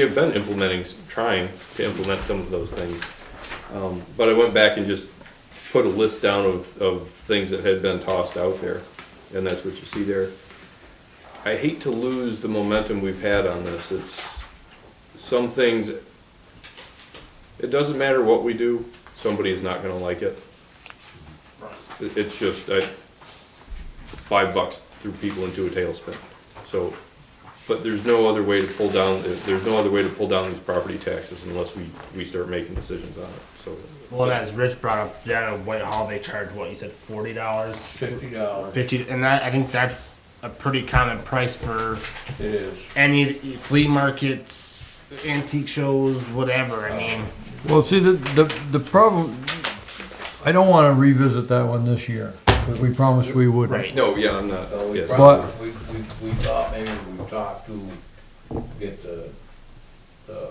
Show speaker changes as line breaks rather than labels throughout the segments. We've been implementing, trying to implement some of those things. Um, But I went back and just put a list down of, of things that had been tossed out there, and that's what you see there. I hate to lose the momentum we've had on this. It's, some things, it doesn't matter what we do, somebody is not gonna like it. It- It's just, I, five bucks threw people into a tailspin. So but there's no other way to pull down, there's no other way to pull down these property taxes unless we, we start making decisions on it, so.
Well, and as Rich brought up, down at Whitehall, they charge what you said forty dollars,
Fifty dollars,
fifty, and that I think that's a pretty common price for
it is.
any flea markets, antique shows, whatever. I mean,
Well, see, the, the, the problem, I don't wanna revisit that one this year, because we promised we
right?
wouldn't.
No, yeah, I'm not,
So we
yes.
probably, we, we, we thought maybe we talked to get the, the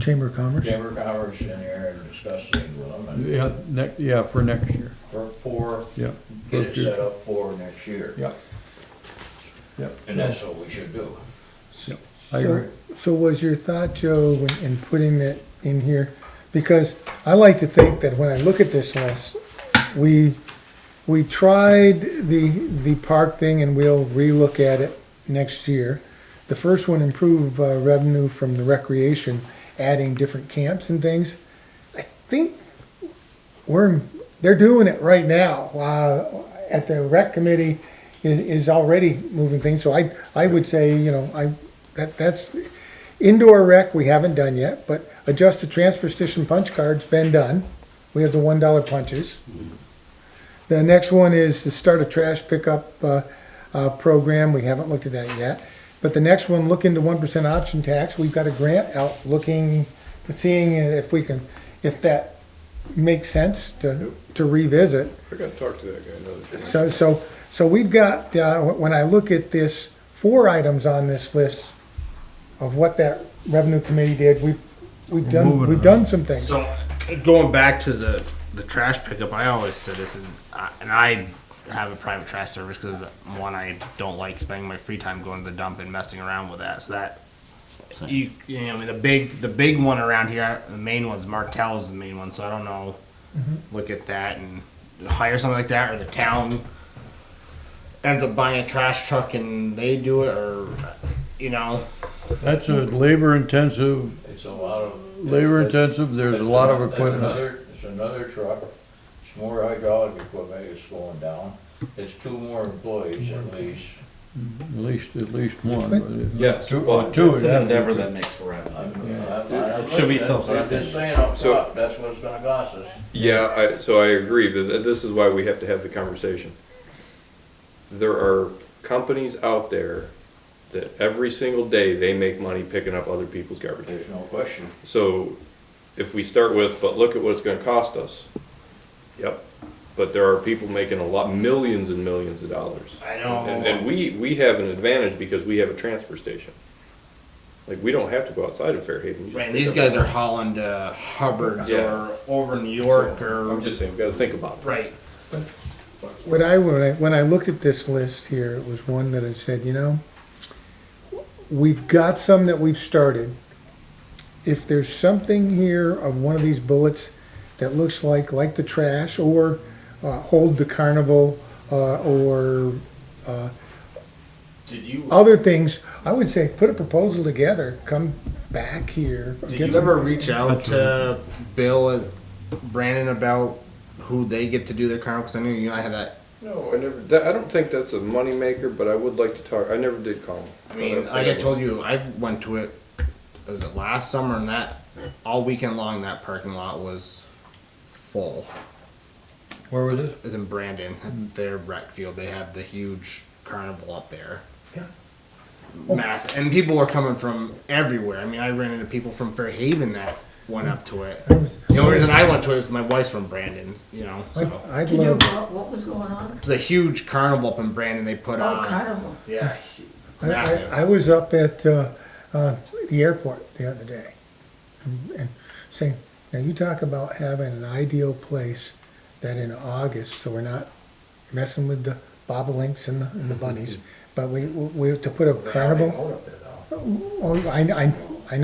Chamber of Commerce?
Chamber of Commerce in there and discuss things with them and
Yeah, next, yeah, for next year,
for, for,
yeah.
get it set up for next year.
Yeah. Yeah.
And that's what we should do.
I agree.
So- So was your thought, Joe, when- in putting that in here? Because I like to think that when I look at this list, we, we tried the, the park thing and we'll relook at it next year. The first one, improve uh, revenue from the recreation, adding different camps and things. I think we're, they're doing it right now. Uh, at the rec committee is, is already moving things, so I, I would say, you know, I, that, that's, indoor rec, we haven't done yet, but adjust the transfer station punch card's been done. We have the one dollar punches. The next one is to start a trash pickup, uh, uh, program, we haven't looked at that yet. But the next one, look into one percent option tax, we've got a grant out looking, seeing if we can, if that makes sense to, to revisit.
I gotta talk to that guy another time.
So, so, so we've got, uh, when I look at this, four items on this list of what that revenue committee did, we've, we've done,
Moving
we've done some things.
So going back to the the trash pickup, I always said this, and I, and I have a private trash service because one, I don't like spending my free time going to the dump and messing around with that. So that you, you know, I mean, the big the big one around here, the main one's Martell's the main one. So I don't know. Look at that and hire something like that, or the town ends up buying a trash truck and they do it, or you know,
That's a labor-intensive,
It's a lot of.
labor-intensive, there's a lot of
That's
equipment.
another- It's another truck, it's more hydraulic equipment, it's going down, it's two more employees at least.
At least, at least one. but if-
Yes,
Two,
well,
well, two.
It's
it'd
an
have to-
endeavor that makes for revenue.
I'm- I'm- I'm listening, but
Should be
I'm just
self-sustaining.
saying up
So-
top, that's what it's gonna cost us.
Yeah, I, so I agree, but th- this is why we have to have the conversation. There are companies out there that every single day, they make money picking up other people's garbage.
There's no question.
So if we start with, but look at what it's gonna cost us, yep, but there are people making a lot, millions and millions of dollars.
I know.
And, and we, we have an advantage because we have a transfer station. Like, we don't have to go outside of Fairhaven. You just
Right,
pick
these
up-
guys are hauling to Hubbard's
Yeah.
or over New York
I'm
or
just saying, we gotta think about it.
right.
What I, when I, when I looked at this list here, it was one that I said, you know, we've got some that we've started. If there's something here of one of these bullets that looks like, like the trash or, uh, hold the carnival, uh, or
Did you
other things, I would say put a proposal together, come back here.
did
get
you
some-
ever reach out to Bill and Brandon about who they get to do their carnival? Because I knew you and I had that.
No, Oh, I never, that- I don't think that's a moneymaker, but I would like to talk, I never did call them.
I mean, like I told you, I went to it. Was it last summer? And that all weekend long, that parking lot was full.
Where was this?
Is in Brandon at their rec field. They had the huge carnival up there.
Yeah.
Massive, and people were coming from everywhere. I mean, I ran into people from Fairhaven that went up to it.
I was-
The only reason I went to it is my wife's from Brandon, you know.
I'd-
So
I'd
To do
love,
what, what was going on?
it's a huge carnival up in Brandon they put
Oh,
on.
carnival.
Yeah,
I,
massive.
I, I was up at, uh, uh, the airport the other day. and- And saying, now you talk about having an ideal place that in August, so we're not messing with the bobolinks and the, and the bunnies. But we, we, to put a
They already
carnival,
mowed up there, though.
oh, I, I,